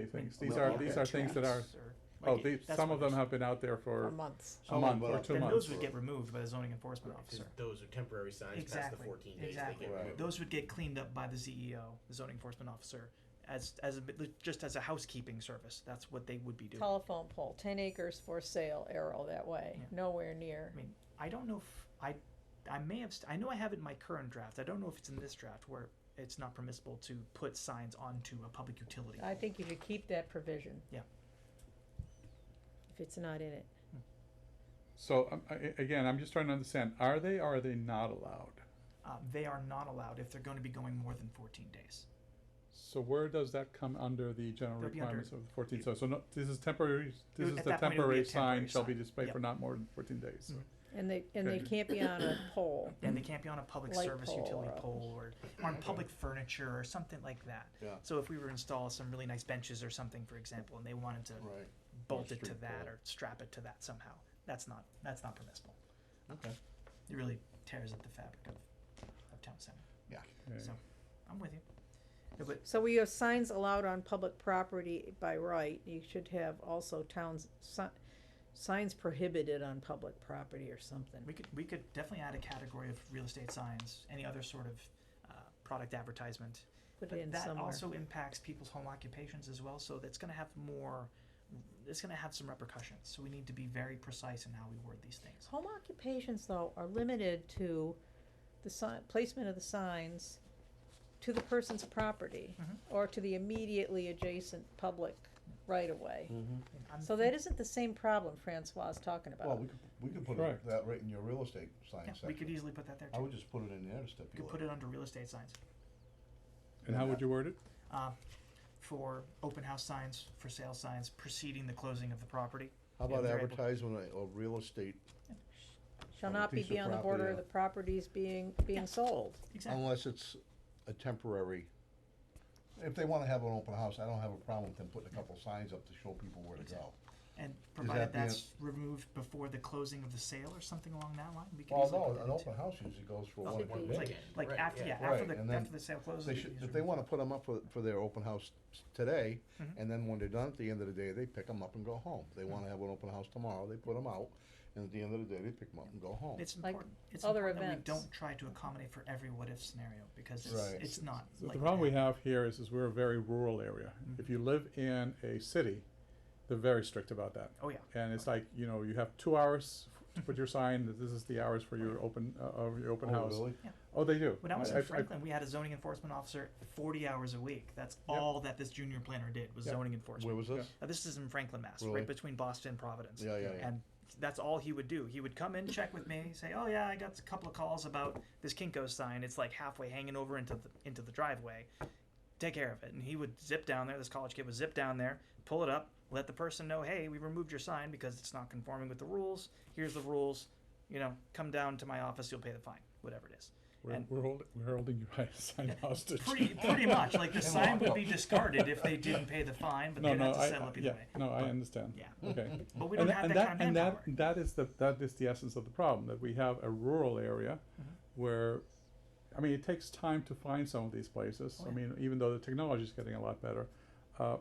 things. Will These you are, get these are things that are, checks or- oh, like, these, that's some what of them I'm have been out there for for months. a Oh, month well, or two Then those months. would get removed by the zoning enforcement officer. those are temporary signs past the Exactly, fourteen days, they exactly. get Right. removed. Those would get cleaned up by the CEO, the zoning enforcement officer, as, as, a bit- just as a housekeeping service. That's what they would be doing. Telephone pole, ten acres for sale, arrow that way, Yeah. nowhere near. I mean, I don't know if, I, I may have, st- I know I have it in my current draft. I don't know if it's in this draft where it's not permissible to put signs onto a public utility. I think you could keep that provision. Yeah. If it's not in it. So, um, I, I- again, I'm just trying to understand, are they, or are they not allowed? Uh, they are not allowed if they're going to be going more than fourteen days. So where does that come under the general They'll be under- requirements of the fourteen, so, so no, this is temporary, this would- is at the that point, it would be temporary a sign temporary shall be sign. displayed for Yep. Mm-hmm. not more than fourteen days, so. And they, and they Okay. can't be on a pole. And they can't be on a public Mm. Light service pole utility or a- pole or on public furniture or something like that. Yeah. So if we were to install some really nice benches or something, for example, and they wanted to Right. bolt it to street that pole. or strap it to that somehow, that's not, that's not permissible. Okay. It really tears at the fabric of, of town center. Yeah. okay. So, I'm with you. No, but So we have signs allowed on public property by right, you should have also towns, si- signs prohibited on public property or something. we could, we could definitely add a category of real estate signs, any other sort of, uh, product advertisement. Put But it in that somewhere. also impacts people's home occupations as well, so that's gonna have more, it's gonna have some repercussions, so we need to be very precise in how we word these things. Home occupations though are limited to the sign, placement of the signs to the person's property Mhm. or to the immediately adjacent public right of way. Mm-hmm. And I'm So think- that isn't the same problem Francois is talking Well, about. we could, we could put Correct. it- that right in your real estate sign yeah, section. we could easily put that there I too, would just put it in there to we could put stipulate. it under real estate signs, And how would you word it? uh, for open house signs, for sale signs preceding the closing of the property. How Yeah, about they're able- advertisement of real estate Shall on a not be piece of beyond the border of the property. properties being, Yeah. being sold. Exactly, unless it's a temporary? If they wanna have an open house, I don't have a problem with them putting a couple signs up to show people where to go. and that provided the, uh, that's removed before the closing of the sale or something along that line, we could Well, easily put no, that an in open too. house usually goes for one, Should one be. day. Like Right, after, yeah. yeah, after Right, and the, then after the sale closes. They we should, can if just they remove wanna put them up for, for their open house today, Mhm. and then when they're done, at the end of the day, they pick them up and go home. They Mm-hmm. wanna have an open house tomorrow, they put them out, and at the end of the day, they pick them up and go home. It's Like important, it's other important that we events. don't try to accommodate for every what-if scenario, because it's, Right. it's not The like the problem we that. Mm-hmm. have here is, is we're a very rural area. If you live in a city, they're very strict about that. Oh, yeah, And it's like, you know, you have two hours to put your sign, that this is the hours for your open, uh, of your open Oh, house. really? Oh, they do. when I was I- in I- Franklin, we had a zoning enforcement officer forty hours a week, that's Yep. all that this junior planner did, was Yep. zoning Where enforcement. was this? Now, this is in Franklin, Mass, Really? right between Boston and Providence. Yeah, yeah, yeah. And that's all he would do, he would come in, check with me, say, oh yeah, I got a couple of calls about this Kinko sign, it's like halfway hanging over into the, into the driveway. Take care of it, and he would zip down there, this college kid would zip down there, pull it up, let the person know, hey, we removed your sign because it's not conforming with the rules, here's the rules, you know, come down to my office, you'll pay the fine, whatever it is. We're, And- we're holding, we're holding you by a sign hostage. Pretty, pretty much, like the And sign would lock be up. discarded if they didn't pay the fine, but No, they'd no, have to I, settle I- up either yeah, way. no, I understand. Yeah. Okay. But we And don't tha- have and that kind of And manpower. that, that is the, that is the essence of the problem, that we have a rural area Mm-hmm. where, I mean, it takes time to find some of these places. Oh, I yeah. mean, even though the technology is getting a lot better. Uh,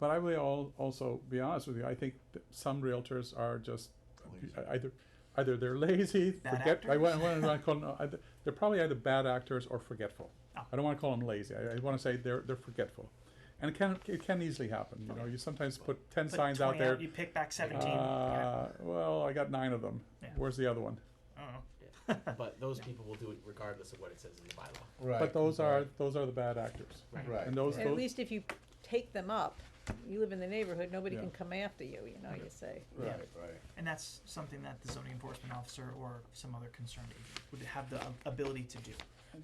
But I will al- also be honest with you, I think that some realtors are just Lazy. uh, either, either they're lazy, Bad forget, I wa- I actors? wanna, not call them, uh, either- they're probably either bad actors or forgetful. Ah. I don't wanna call them lazy, I, I wanna say they're, they're forgetful. And it can, it can easily happen, you know, you sometimes put ten Oh, Put signs out 20 there, You pick back seventeen. yeah. uh, well, I got nine of them. Yeah. Where's the other one? I don't know. Yeah. But those people will do it regardless of what it says in the bylaw. Right. But those are, those are the bad actors. Right. And those, At those, least if you take them up, you live in the neighborhood, nobody Yeah. can come after you, you know, you say. Right, Yeah. right. And that's something that the zoning enforcement officer or some other concerned agent would have the ability to do.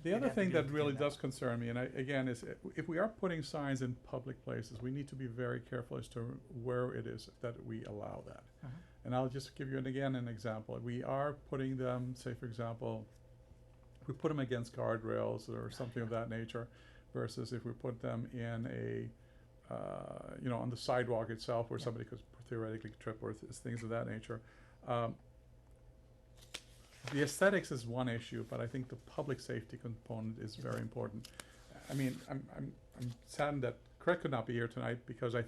the You'd other have to thing be that able to do really that. does concern me, and I, again, is i- if we are putting signs in public places, we need to be very careful as to where it is that we allow that. Mhm. And I'll just give you an, again, an example. We are putting them, say for example, we put them against guardrails or something of that nature versus if we put them in a, uh, you know, on the sidewalk itself where Yeah. somebody could theoretically trip or th- things of that nature. Um, the aesthetics is one issue, but I think the public safety component is very important. I mean, I'm, I'm, I'm saddened that Craig could not be here tonight because I